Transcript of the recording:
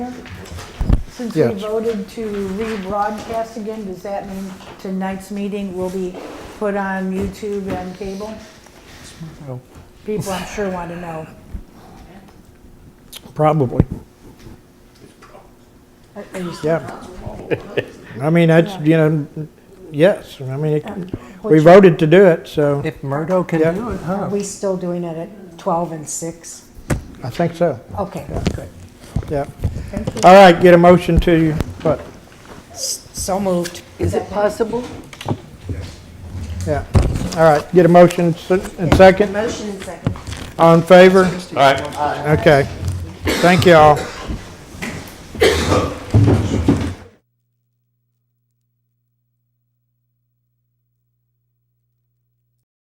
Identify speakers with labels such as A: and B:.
A: Since
B: Yeah.
A: we voted to rebroadcast again, does that mean tonight's meeting will be put on YouTube and cable? People, I'm sure, want to know.
B: Probably,
A: Are- are you-
B: yeah. I mean, that's, you know, yes, I mean, it- we
C: Which-
B: voted to do it, so
D: If Murdo can
B: Yeah.
D: do it,
C: Are
D: huh?
C: we still doing it at 12 and 6?
B: I think so,
C: Okay, good.
B: yeah. All right, get a motion to, what,
C: So moved.
A: Is it possible?
B: yeah. All right, get a motion s- and second,
C: Motion second.
B: all in favor?
E: All right.
B: Okay, thank you all.